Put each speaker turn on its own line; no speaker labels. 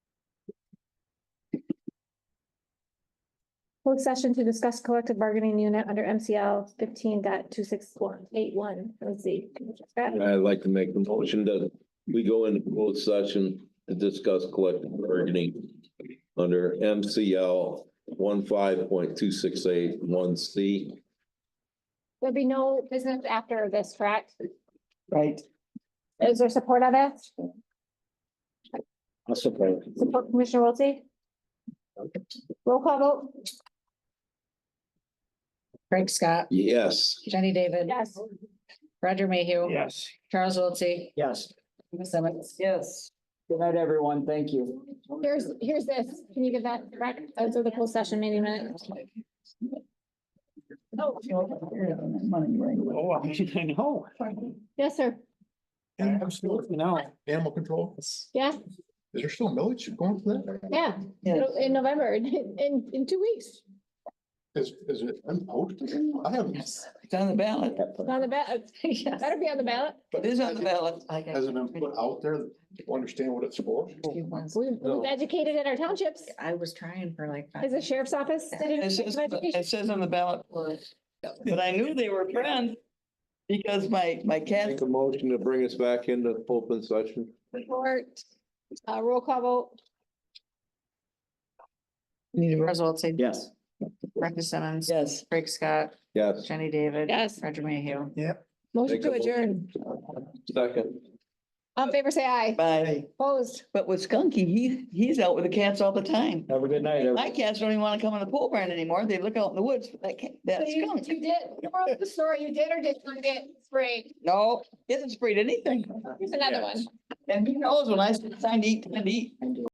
Closed session to discuss collective bargaining unit under MCL fifteen let's see.
I'd like to make the motion that we go into closed session to discuss collective bargaining under MCL one C.
There'll be no business after this, correct?
Right.
Is there support of it?
I'll support.
Support Commissioner Wiltie? Roll call vote?
Frank Scott,
Yes.
Jenny David.
Yes.
Roger Mayhew.
Yes.
Charles Wiltie.
Yes.
Ms. Simmons.
Yes. Good night, everyone. Thank you.
Here's, here's this. Can you give that back? Those are the closed session meeting minutes.
Oh, I know.
Yes, sir.
Absolutely,
now.
Animal control, is
Yeah,
there still millage going for that?
yeah. It'll- In November, in, in, in two weeks.
Is, is it, I'm I haven't,
It's on the ballot.
On the ballot,
Yes.
better be on the ballot.
It is on the ballot.
hasn't been put out there to understand what it's for.
We- We've educated in our townships.
I was trying for like. five-
Is the sheriff's office?
It says, it says on the ballot, but I knew they were friends because my, my cat,
Make a motion to bring us back into open session.
Support. Uh, roll call vote?
Charles Wiltie.
Yes.
Brenda Simmons.
yes.
Frank Scott,
Yes,
Jenny David.
Yes.
Roger Mayhew.
Motion
Make a
to
motion.
adjourn.
second.
All in favor, say aye.
Bye.
Opposed?
But with Skunky, he, he's out with the cats all the time.
Have a good night.
My cats don't even want to come in the pole barn anymore. They look out in the woods for that cat,
So
that
You
skunk.
you did, the moral of the story, you did or did not get sprayed?
No, he hasn't sprayed anything.
Here's another one.
And he knows when I said, time to eat, time to eat.